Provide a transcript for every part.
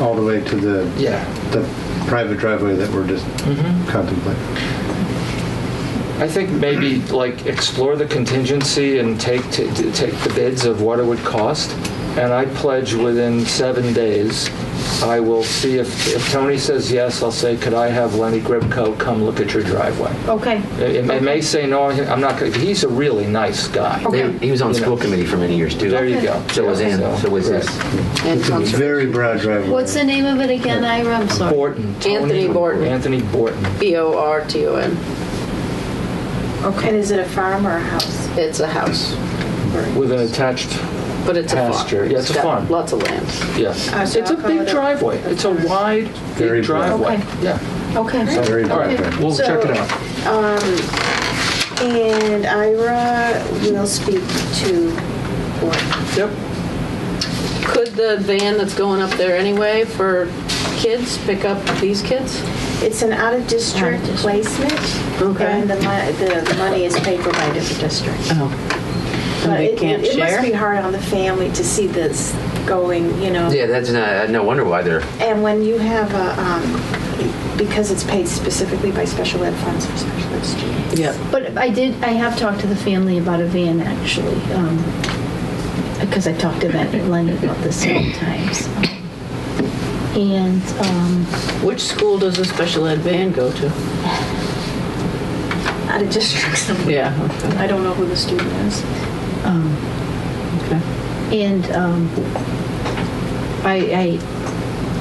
all the way to the, Yeah, the private driveway that we're just contemplating. I think maybe like explore the contingency and take, t- t- take the bids of what it would cost. And I pledge within seven days, I will see if, if Tony says yes, I'll say, could I have Lenny Gribko come look at your driveway? Okay. It, it may- may say no, I'm not, gonna- he's a really nice guy. Okay. He was on the school committee for many years, too. There you go. So was Ann, so was this. And It's a very broad driveway. What's the name of it again, Ira? I'm sorry. Borton. Tony Anthony Borton. Anthony Borton. B-O-R-T-O-N. And is it a farm or a house? It's a house, With an attached, but it's a farm. Pasture. Yeah, it's a got farm. Lots of land. yes. Uh, so It's a I'll call big it a- driveway. It's a wide, Very big broad. driveway. Okay. Yeah. Okay. It's a very All broad right, driveway. we'll check it out. And Ira will speak to Board. Yep. Could the van that's going up there anyway for kids pick up these kids? It's an out-of-district Out-of-district. placement. Okay. And the mon- the, the money is paid for by different districts. Oh. But they it- can't It must share? be hard on the family to see this going, you know. Yeah, that's not, no wonder why they're, And when you have a, um, because it's paid specifically by special ed funds for special ed students. Yep. But I did, I have talked to the family about a van, actually, um, because I talked to Len- Lenny about this several times. And um, Which school does the special ed van go to? Out of districts. Yeah. I don't know who the student is. Okay. um, And um, I,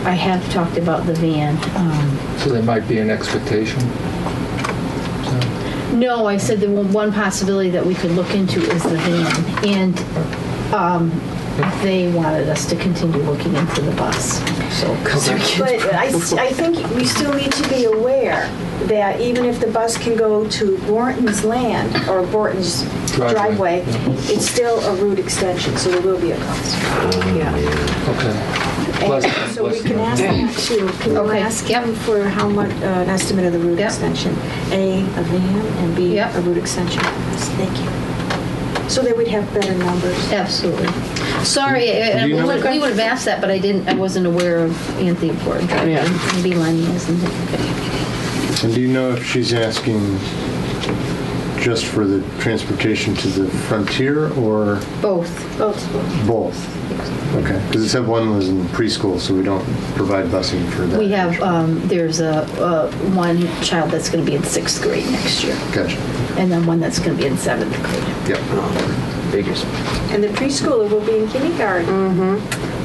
I, I have talked about the van. Um, So there might be an expectation. No, I said the one one possibility that we could look into is the van. And um, they wanted us to continue looking into the bus, so. But I, I think we still need to be aware that even if the bus can go to Borton's land or Borton's Driveway. driveway, it's still a route extension, so there will be a cost. Okay. And Bless- So we bless can you. ask him to, can you Okay. ask him for how much, uh, an estimate of the route Yep. extension? A, a van, and B, Yep. a route extension. Thank you. So that we'd have better numbers. Absolutely. Sorry, I- I- Do we you know- would have asked that, but I didn't, I wasn't aware of Anthony Ford. Yeah. Maybe Lenny isn't. And do you know if she's asking just for the transportation to the frontier or Both. Both. both? Okay, because it said one was in preschool, so we don't provide busing for that. We have, um, there's a, uh, one child that's going to be in sixth grade next year, Gotcha, and then one that's going to be in seventh grade. yep. biggest. And the preschooler will be in kindergarten.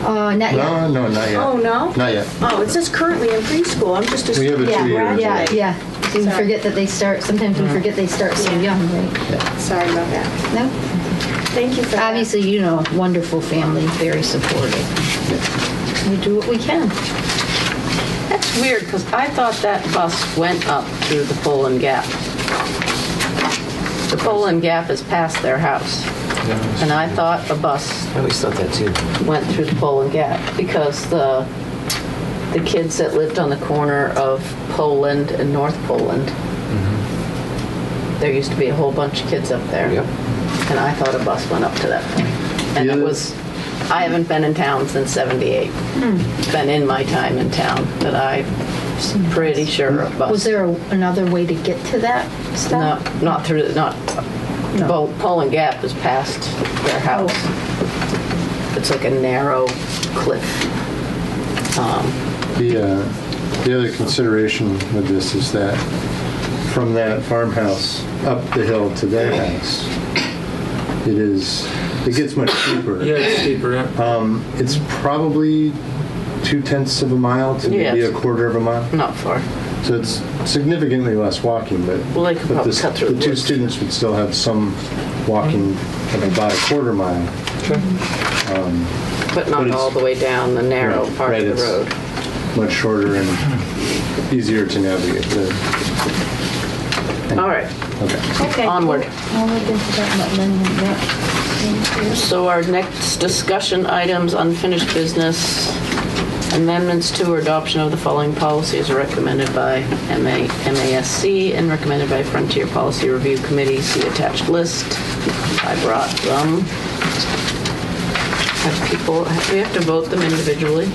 Uh, not yet. No, no, Mm. not yet. Oh, no? Not yet. Oh, it says currently in preschool. I'm just. We have a yeah, two-year right. Yeah, yeah. We Sorry. forget that they start, sometimes we forget they start so young, right? Sorry about that. No? Thank you for that. Obviously, you know, wonderful family, very supportive. We do what we can. That's weird, because I thought that bus went up through the Poland Gap. The Poland Gap is past their house. And I thought a bus I always thought that, too. went through the Poland Gap because the, the kids that lived on the corner of Poland and North Poland, there used to be a whole bunch of kids up there. Yep. And I thought a bus went up to that point. And Yeah. it was, I haven't been in town since 78. Hmm. It's Been in my time in town, but I'm pretty sure a bus. Was there a- another way to get to that No, stop? not through, the- not, No. Pol- Poland Gap is past their house. Oh. It's like a narrow cliff. The, uh, the other consideration with this is that from that farmhouse up the hill to their house, it is, it gets much cheaper. Yeah, it's steeper, yeah. Um, it's probably two tenths of a mile to maybe Yes. a quarter of a mile. Not far. So it's significantly less walking, but, Well, they could but probably the, cut through the the two woods. students would still have some walking of about a quarter mile. But But not it's- all the way down the narrow Right, part right, of it's the road. Much shorter and easier to navigate. The, All right, okay. Okay. onward. Well, we've been talking about Lenny and that. So our next discussion items, unfinished business, amendments to or adoption of the following policies are recommended by MA MASC and recommended by Frontier Policy Review Committee. See attached list. I brought them. Have people, we have to vote them individually.